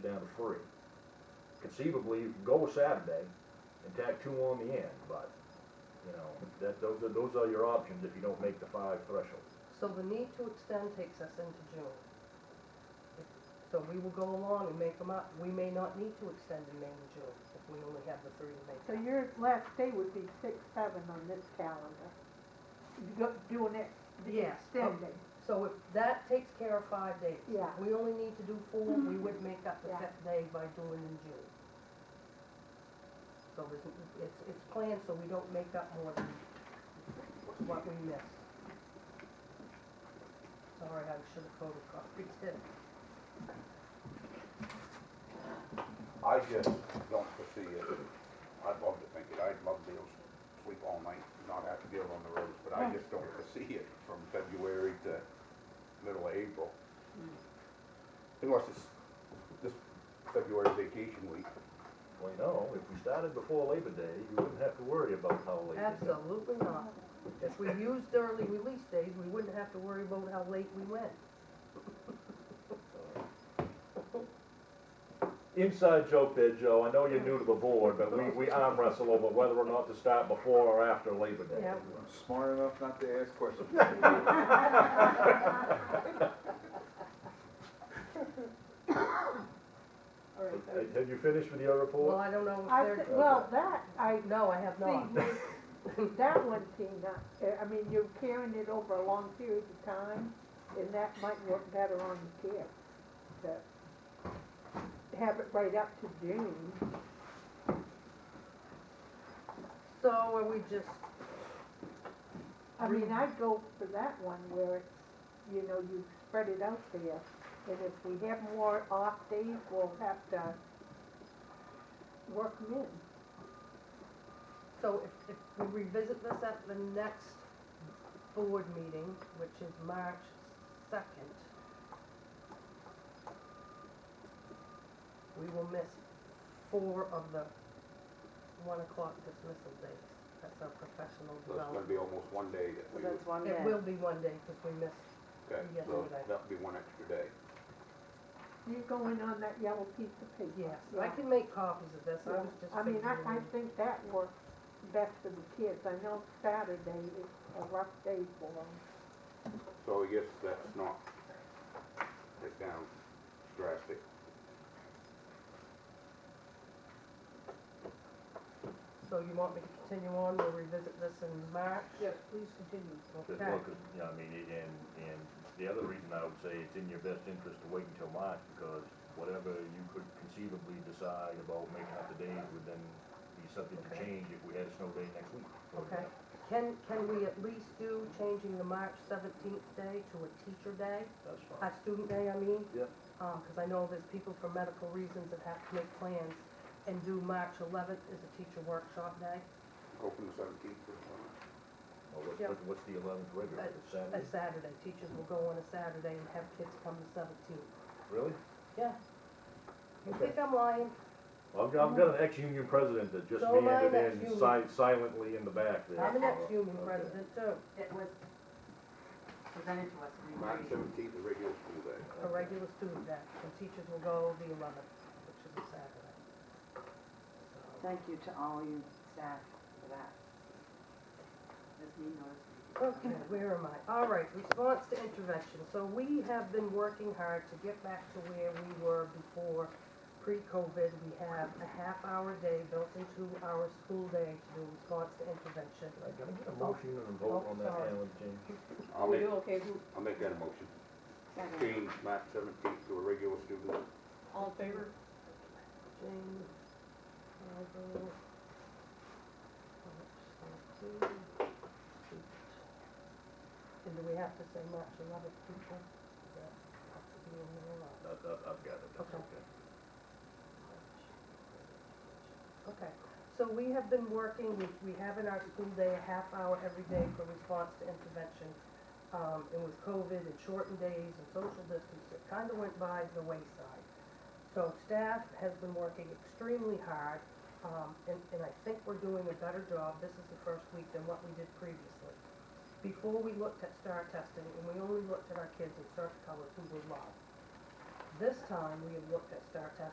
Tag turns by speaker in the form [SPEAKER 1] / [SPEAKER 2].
[SPEAKER 1] down to three. Conceivably, you can go a Saturday and tack two on the end, but, you know, that, those are, those are your options if you don't make the five threshold.
[SPEAKER 2] So the need to extend takes us into June. So we will go along and make them up. We may not need to extend in May and June if we only have the three to make.
[SPEAKER 3] So your last day would be six, seven on this calendar. You go- Doing it, the
[SPEAKER 2] Yes.
[SPEAKER 3] extending.
[SPEAKER 2] So if that takes care of five days.
[SPEAKER 3] Yeah. Mm-hmm.
[SPEAKER 2] We only need to do four, we would make up the
[SPEAKER 3] Yeah.
[SPEAKER 2] fifth day by doing in June. So there's, it's, it's planned so we don't make up more than what we missed. Sorry, I should have photocopied it.
[SPEAKER 4] I just don't foresee it. I'd love to think it. I'd love to be able to sleep all night, not have to get on the roads, but I just don't foresee it from February to middle of April.
[SPEAKER 5] Hmm.
[SPEAKER 4] Unless it's this February vacation week.
[SPEAKER 1] Well, you know, if we started before Labor Day, you wouldn't have to worry about how late. it is.
[SPEAKER 2] Absolutely not. If we used early release days, we wouldn't have to worry about how late we went.
[SPEAKER 1] Inside joke there, Joe, I know you're new to the board, but we, we arm wrestle over whether or not to start before or after Labor Day.
[SPEAKER 2] Yeah.
[SPEAKER 5] Smart enough not to ask questions.
[SPEAKER 3] All right, so-
[SPEAKER 1] Have you finished with your
[SPEAKER 2] Well,
[SPEAKER 1] report?
[SPEAKER 2] I don't know if
[SPEAKER 3] I,
[SPEAKER 2] they're,
[SPEAKER 3] thi- well, that, I
[SPEAKER 2] no, I have not.
[SPEAKER 3] see, you- that one, Tina, uh, I mean, you're carrying it over a long period of time, and that might work better on the care. To have it right up to June.
[SPEAKER 2] So are we just,
[SPEAKER 3] I mean, I'd go for that one where it's, you know, you spread it out there, and if we have more off days, we'll have to work 'em in.
[SPEAKER 2] so if, if we revisit this at the next board meeting, which is March second, we will miss four of the one o'clock dismissal days. That's our professional
[SPEAKER 4] So it's gonna
[SPEAKER 2] development.
[SPEAKER 4] be almost one day that
[SPEAKER 6] So
[SPEAKER 4] we,
[SPEAKER 6] that's one day.
[SPEAKER 2] It will be one day because we missed
[SPEAKER 4] okay,
[SPEAKER 2] Yes,
[SPEAKER 4] so
[SPEAKER 2] okay.
[SPEAKER 4] that'll be one extra day.
[SPEAKER 3] You go in on that yellow piece of paper.
[SPEAKER 2] Yes, I can make copies of this, I was just
[SPEAKER 3] I mean,
[SPEAKER 2] thinking.
[SPEAKER 3] I, I think that works best for the kids. I know Saturday is a rough day for them.
[SPEAKER 4] So I guess that's not, that down drastic.
[SPEAKER 2] So you want me to continue on, we'll revisit this in March?
[SPEAKER 3] Yes,
[SPEAKER 2] please continue.
[SPEAKER 1] Just
[SPEAKER 2] Okay,
[SPEAKER 1] look at- yeah, I mean, it- and, and the other reason I would say it's in your best interest to wait until March, because whatever you could conceivably decide about making up the days would then be subject to
[SPEAKER 2] Okay.
[SPEAKER 1] change if we had a snow day next week. for
[SPEAKER 2] okay.
[SPEAKER 1] example.
[SPEAKER 2] Can, can we at least do changing the March seventeenth day to a teacher day,
[SPEAKER 1] That's fine.
[SPEAKER 2] a student day, I mean?
[SPEAKER 1] Yep.
[SPEAKER 2] Um, cause I know there's people for medical reasons that have to make plans and do March eleventh is a teacher workshop day,
[SPEAKER 4] Open the seventeenth or something.
[SPEAKER 1] Well, what's,
[SPEAKER 2] Yeah.
[SPEAKER 1] what- what's the eleventh regular,
[SPEAKER 2] Uh,
[SPEAKER 1] It's Saturday?
[SPEAKER 2] a Saturday. Teachers will go on a Saturday and have kids come the seventeenth.
[SPEAKER 1] Really?
[SPEAKER 2] Yeah. You
[SPEAKER 1] Okay.
[SPEAKER 2] think I'm lying?
[SPEAKER 1] Well, I've got, I've got an ex-union president that just
[SPEAKER 2] So am I an
[SPEAKER 1] handed in
[SPEAKER 2] ex-union.
[SPEAKER 1] si- silently in the back there.
[SPEAKER 2] I'm an ex-union
[SPEAKER 1] Okay.
[SPEAKER 2] president too.
[SPEAKER 6] It was presented to us in
[SPEAKER 4] March
[SPEAKER 6] writing.
[SPEAKER 4] seventeenth, a regular school day.
[SPEAKER 2] a regular student day, and teachers will go the eleventh, which is a Saturday. So-
[SPEAKER 6] Thank you to all you staff for that. This meeting notice.
[SPEAKER 2] Okay, where am I? All right, response to intervention. So we have been working hard to get back to where we were before pre-COVID. We have a half-hour day built into our school day to do response to intervention.
[SPEAKER 1] I gotta get a motion and a vote
[SPEAKER 2] Oh,
[SPEAKER 1] on that,
[SPEAKER 2] sorry.
[SPEAKER 1] Alan, James.
[SPEAKER 4] I'll make,
[SPEAKER 3] okay?
[SPEAKER 4] I'll make that a motion.
[SPEAKER 6] Second.
[SPEAKER 4] Change March seventeenth to a regular student day.
[SPEAKER 3] All in favor?
[SPEAKER 2] Jane, Michael, March 17th. And do we have to say March eleventh, people? Does that have to be in there or
[SPEAKER 1] I've, I've I've got it, that's
[SPEAKER 2] Okay.
[SPEAKER 1] okay.
[SPEAKER 2] not? Okay, so we have been working, we, we have in our school day a half hour every day for response to intervention. Um, and with COVID and shortened days and social distance, it kind of went by the wayside. So staff has been working extremely hard, um, and, and I think we're doing a better job, this is the first week, than what we did previously. Before, we looked at star testing, and we only looked at our kids in certain colors who were loved. This time, we have looked at star testing